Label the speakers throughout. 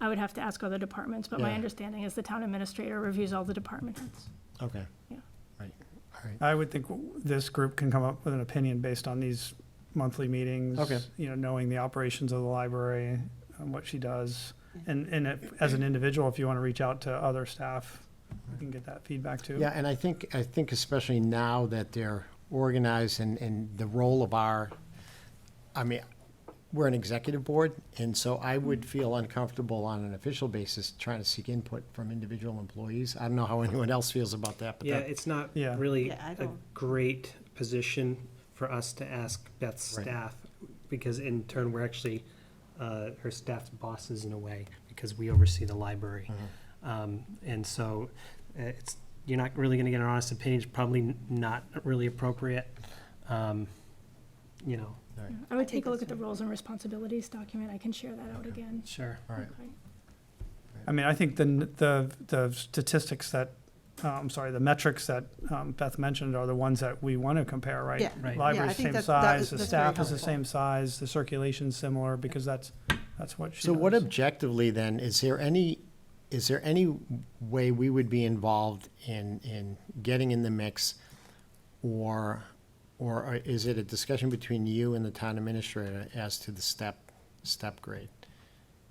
Speaker 1: I would have to ask other departments, but my
Speaker 2: Yeah.
Speaker 1: understanding is the town administrator reviews all the department heads.
Speaker 2: Okay.
Speaker 1: Yeah.
Speaker 2: Right, all right.
Speaker 3: I would think this group can come up with an opinion based on these monthly meetings.
Speaker 2: Okay.
Speaker 3: You know, knowing the operations of the library and what she does. And, and if- as an individual, if you want to reach out to other staff, you can get that feedback too.
Speaker 2: Yeah, and I think, I think especially now that they're organized and, and the role of our, I mean, we're an executive board, and so I would feel uncomfortable on an official basis trying to seek input from individual employees. I don't know how anyone else feels about that, but
Speaker 4: Yeah,
Speaker 2: that,
Speaker 4: it's not
Speaker 3: Yeah.
Speaker 4: really
Speaker 5: Yeah, I
Speaker 4: a
Speaker 5: don't-
Speaker 4: great position for us to ask Beth's
Speaker 2: Right.
Speaker 4: staff, because in turn, we're actually uh, her staff's bosses in a way, because we oversee the library. Um, And so uh, it's, you're not really going to get an honest opinion, it's probably n- not really appropriate, um, you know,
Speaker 1: I would
Speaker 5: think
Speaker 1: take a look at
Speaker 5: that's
Speaker 1: the
Speaker 5: right.
Speaker 1: roles and responsibilities document. I can share that out again.
Speaker 4: sure.
Speaker 2: all right.
Speaker 1: Okay.
Speaker 3: I mean, I think the, n- the, the statistics that, uh, I'm sorry, the metrics that um, Beth mentioned are the ones that we want to compare, right?
Speaker 5: Yeah.
Speaker 4: Right.
Speaker 5: Yeah, I
Speaker 3: Library's
Speaker 5: think
Speaker 3: same
Speaker 5: that- that
Speaker 3: size,
Speaker 5: is-
Speaker 3: the
Speaker 5: that's very
Speaker 3: staff is the
Speaker 5: helpful.
Speaker 3: same size, the circulation's similar, because that's, that's what she
Speaker 2: So what
Speaker 3: does.
Speaker 2: objectively then, is there any, is there any way we would be involved in, in getting in the mix? Or, or uh, is it a discussion between you and the town administrator as to the step, step grade?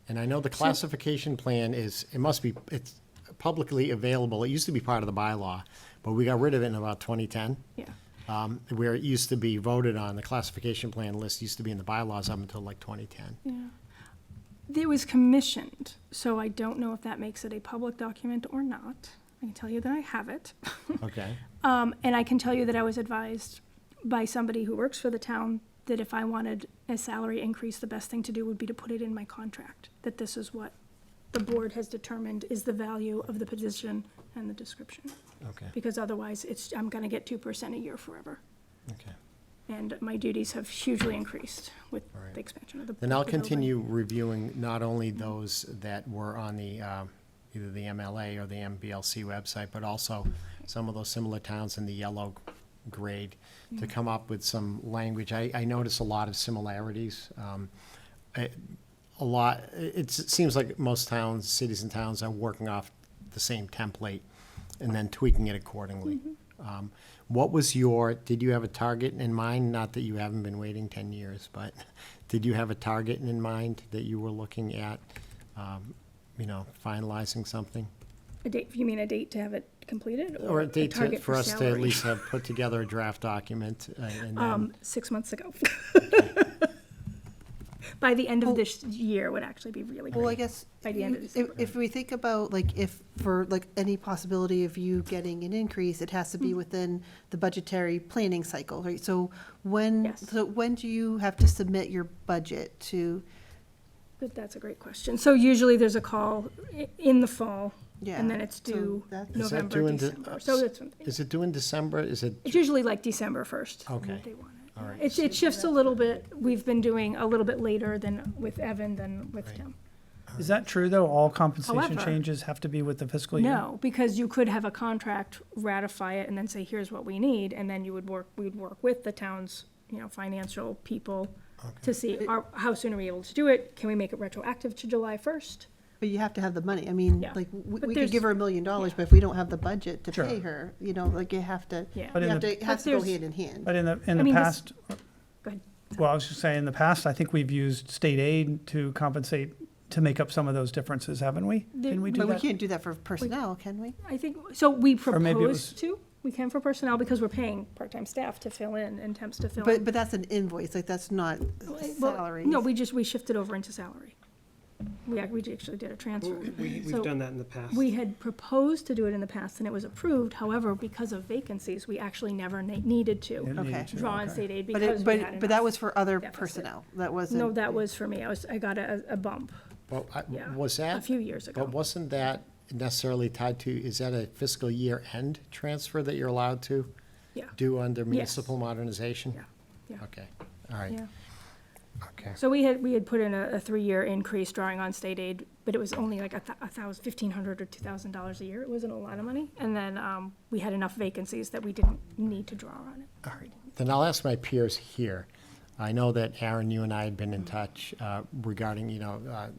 Speaker 2: And I know the classification plan is, it must be, it's publicly available. It used to be part of the bylaw, but we got rid of it in about twenty ten
Speaker 1: Yeah,
Speaker 2: um, where it used to be voted on, the classification plan list used to be in the bylaws up until like 2010.
Speaker 1: yeah. It was commissioned, so I don't know if that makes it a public document or not. I can tell you that I have it.
Speaker 2: Okay.
Speaker 1: Um, and I can tell you that I was advised by somebody who works for the town that if I wanted a salary increase, the best thing to do would be to put it in my contract, that this is what the board has determined is the value of the position and the description.
Speaker 2: Okay,
Speaker 1: Because otherwise, it's, I'm gonna get two percent a year forever.
Speaker 2: okay.
Speaker 1: And my duties have hugely increased with
Speaker 2: All right.
Speaker 1: the expansion of the.
Speaker 2: Then I'll
Speaker 1: the building.
Speaker 2: continue reviewing not only those that were on the, um, either the MLA or the MBLC website, but also some of those similar towns in the yellow grade to come up with some language. I, I notice a lot of similarities. um, I- A lot, it's- it seems like most towns, cities and towns are working off the same template and then tweaking it accordingly. Um, What was your, did you have a target in mind? Not that you haven't been waiting 10 years, but did you have a target in mind that you were looking at, um, you know, finalizing something?
Speaker 1: A date, you mean a date to have it completed?
Speaker 2: Or a date to-
Speaker 1: target
Speaker 2: for us to at
Speaker 1: salary?
Speaker 2: least have put together a draft document uh, and then,
Speaker 1: Um, six months ago. By the end of this year would actually be really
Speaker 5: Well, I
Speaker 1: great.
Speaker 5: guess,
Speaker 1: By the end of
Speaker 5: if, if we think about, like, if, for, like, any possibility of you getting an increase, it has to
Speaker 1: Hmm.
Speaker 5: be within the budgetary planning cycle, right? So when,
Speaker 1: Yes.
Speaker 5: so when do you have to submit your budget to,
Speaker 1: But that's a great question. So usually there's a call i- in the fall,
Speaker 5: yeah?
Speaker 1: and then it's
Speaker 5: so
Speaker 1: due
Speaker 5: that's-
Speaker 2: Is that due
Speaker 1: November,
Speaker 2: in de-
Speaker 1: December. So that's, one thing.
Speaker 2: is it due in December? Is it,
Speaker 1: it's usually like December first.
Speaker 2: Okay.
Speaker 1: They want it.
Speaker 2: all right,
Speaker 1: It, it shifts a little bit. We've been doing a little bit later than with Evan than with
Speaker 2: Right.
Speaker 1: Tim.
Speaker 3: Is that true, though? All compensation
Speaker 1: However-
Speaker 3: changes have to be with the fiscal year?
Speaker 1: No, because you could have a contract, ratify it, and then say, here's what we need, and then you would work, we would work with the town's, you know, financial people to see, are, how soon are we able to do it? Can we make it retroactive to July first?
Speaker 5: But you have to have the money. I mean,
Speaker 1: Yeah.
Speaker 5: like, we,
Speaker 1: But
Speaker 5: we
Speaker 1: there's-
Speaker 5: could give her a million dollars, but if we don't have the budget to
Speaker 3: Sure.
Speaker 5: pay her, you know, like, you have to, you
Speaker 1: Yeah.
Speaker 3: But in
Speaker 5: have
Speaker 3: the-
Speaker 5: to, it has
Speaker 1: But
Speaker 5: to go
Speaker 1: there's-
Speaker 5: hand in hand.
Speaker 3: But in the, in
Speaker 1: I
Speaker 3: the
Speaker 1: mean, this-
Speaker 3: past,
Speaker 1: Go ahead.
Speaker 3: well, I was just saying, in the past, I think we've used state aid to compensate, to make up some of those differences, haven't we?
Speaker 1: There-
Speaker 3: Can we do
Speaker 5: But we
Speaker 3: that?
Speaker 5: can't do that for personnel, can we?
Speaker 1: I think, so we
Speaker 3: maybe it
Speaker 1: propose to, we can for personnel, because we're paying part-time staff to fill in and temps to fill
Speaker 5: But,
Speaker 1: in.
Speaker 5: but that's an invoice, like, that's not
Speaker 1: Well,
Speaker 5: salaries.
Speaker 1: No, we just, we shifted over into salary. We, ac- we actually did a transfer.
Speaker 4: We- We've
Speaker 1: So-
Speaker 4: done that in the past.
Speaker 1: We had proposed to do it in the past and it was approved, however, because of vacancies, we actually never na- needed
Speaker 3: Didn't
Speaker 1: to
Speaker 3: need
Speaker 5: Okay.
Speaker 3: to,
Speaker 1: draw on
Speaker 3: okay.
Speaker 1: state aid
Speaker 5: But
Speaker 1: because
Speaker 5: it,
Speaker 1: we had
Speaker 5: but, but that
Speaker 1: enough.
Speaker 5: was for other
Speaker 1: deficit.
Speaker 5: personnel, that wasn't.
Speaker 1: No, that was for me, I was, I got a, a bump
Speaker 2: well, I-
Speaker 1: Yeah.
Speaker 2: was
Speaker 1: a
Speaker 2: that,
Speaker 1: few years ago.
Speaker 2: but wasn't that necessarily tied to, is that a fiscal year end transfer that you're allowed to
Speaker 1: Yeah,
Speaker 2: do under municipal modernization?
Speaker 1: Yeah, yeah.
Speaker 2: Okay, all right,
Speaker 1: yeah.
Speaker 2: okay.
Speaker 1: So we had, we had put in a, a three-year increase drawing on state aid, but it was only like a thou- a thousand, fifteen hundred or two thousand dollars a year, it wasn't a lot of money. And then, um, we had enough vacancies that we didn't need to draw on it.
Speaker 2: All right, then I'll ask my peers here. I know that Aaron, you and I had been in touch uh, regarding, you know, uh,